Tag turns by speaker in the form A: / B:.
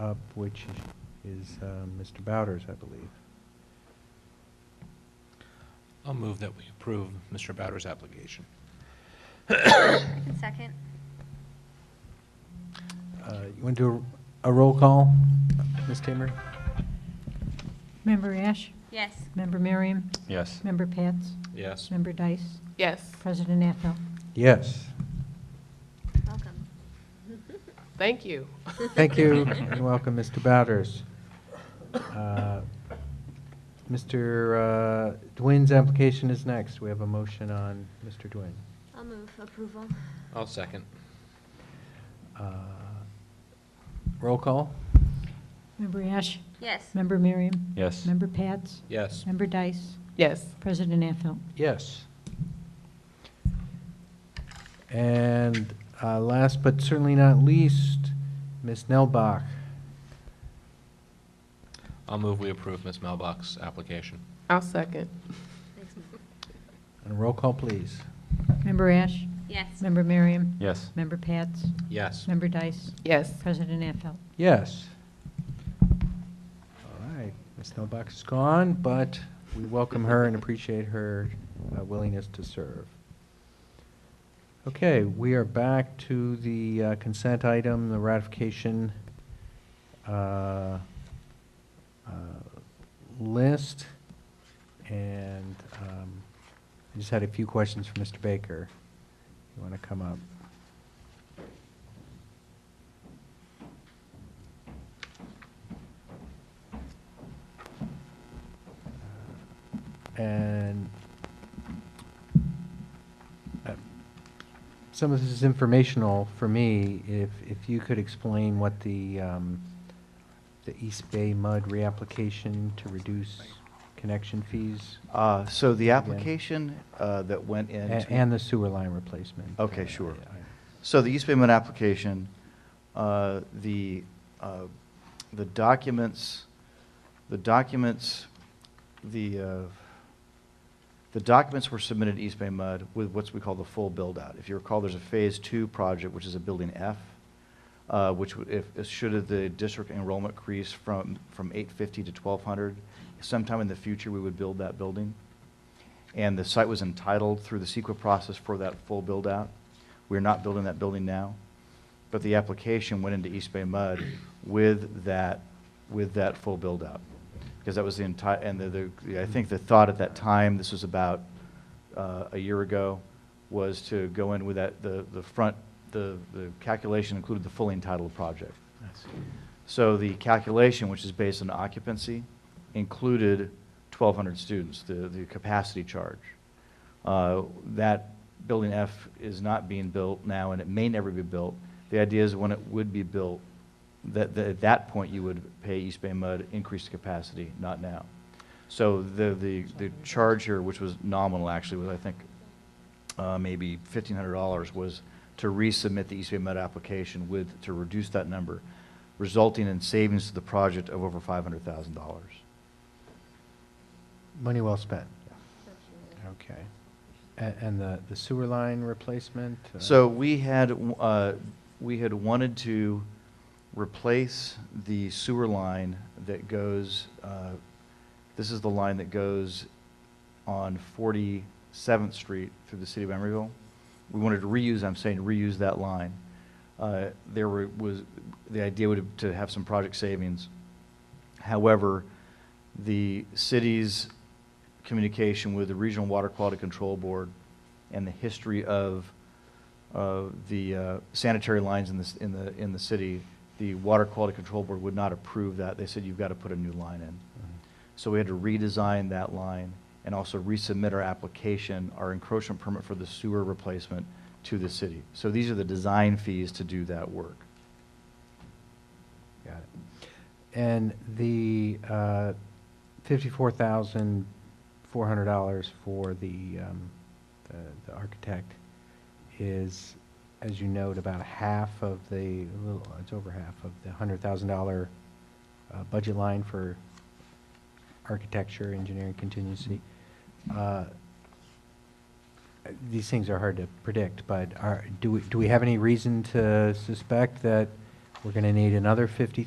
A: up, which is uh, Mr. Bowders, I believe.
B: I'll move that we approve Mr. Bowder's application.
C: Second?
A: Uh, You want to do a a roll call, Ms. Kimmer?
D: Member Ash,
C: Yes.
D: Member Miriam,
E: Yes.
D: Member Pats,
B: Yes.
D: Member Dice,
F: Yes,
D: President Affo.
A: Yes.
C: Welcome.
F: thank you.
A: Thank you, and welcome, Mr. Bowders. Uh, Mr. uh, Dwin's application is next. We have a motion on Mr. Dwin.
C: I'll move approval.
B: I'll second.
A: Uh, Roll call?
D: Member Ash,
C: Yes.
D: Member Miriam,
E: Yes.
D: Member Pats,
B: Yes.
D: Member Dice,
F: Yes,
D: President Affo.
A: Yes. And uh, last but certainly not least, Ms. Nelbach.
B: I'll move we approve Ms. Melbach's application.
F: I'll second.
C: Thanks, Mom.
A: And roll call, please.
D: Member Ash,
C: Yes.
D: Member Miriam,
E: Yes.
D: Member Pats,
B: Yes.
D: Member Dice,
F: Yes,
D: President Affo.
A: Yes. All right, Ms. Nelbach is gone, but we welcome her and appreciate her uh, willingness to serve. Okay, we are back to the uh, consent item, the ratification uh, uh, list. And um, I just had a few questions for Mr. Baker. You want to come up? And uh, some of this is informational for me. If, if you could explain what the, um, the East Bay Mud reapplication to reduce connection fees
G: Uh, So the
A: Again.
G: application uh, that went
A: a-
G: in.
A: and the sewer line replacement. Uh,
G: Okay,
A: I-
G: sure.
A: I-
G: So the East Bay Mud application, uh, the, uh, the documents, the documents, the, uh, the documents were submitted to East Bay Mud with what's we call the full build-out. If you recall, there's a Phase Two project, which is a Building F, uh, which would- if, if- should the district enrollment increase from, from 850 to 1,200, sometime in the future, we would build that building. And the site was entitled through the CEQA process for that full build-out. We're not building that building now, but the application went into East Bay Mud with that, with that full build-out. Because that was the entire, and the, the, I think the thought at that time, this was about, uh, a year ago, was to go in with that, the, the front, the, the calculation included the fully entitled project. So the calculation, which is based on occupancy, included 1,200 students, the, the capacity charge. Uh, That Building F is not being built now, and it may never be built. The idea is when it would be built, that, that at that point, you would pay East Bay Mud increased capacity, not now. So the, the, the charge here, which was nominal actually, was I think uh, maybe fifteen hundred dollars was to resubmit the East Bay Med application with, to reduce that number, resulting in savings to the project of over five hundred thousand dollars.
A: Money well spent. Okay. A- And the the sewer line replacement? uh,
G: So we had, uh, we had wanted to replace the sewer line that goes, uh, this is the line that goes on 47th Street through the city of Emeryville. We wanted to reuse, I'm saying reuse that line. Uh, There were- was, the idea would, to have some project savings. However, the city's communication with the Regional Water Quality Control Board and the history of, uh the uh, sanitary lines in this, in the, in the city, the Water Quality Control Board would not approve that. They said, you've got to put a new line in.
A: mm-hmm.
G: So we had to redesign that line and also resubmit our application, our encroachment permit for the sewer replacement to the city. So these are the design fees to do that work.
A: Got it. And the uh, $54,400 for the, um, the the architect is, as you note, about a half of the, a little, it's over half of the $100,000 uh, budget line for architecture, engineering contingency. Uh, These things are hard to predict, but are, do we, do we have any reason to suspect that we're going to need another fifty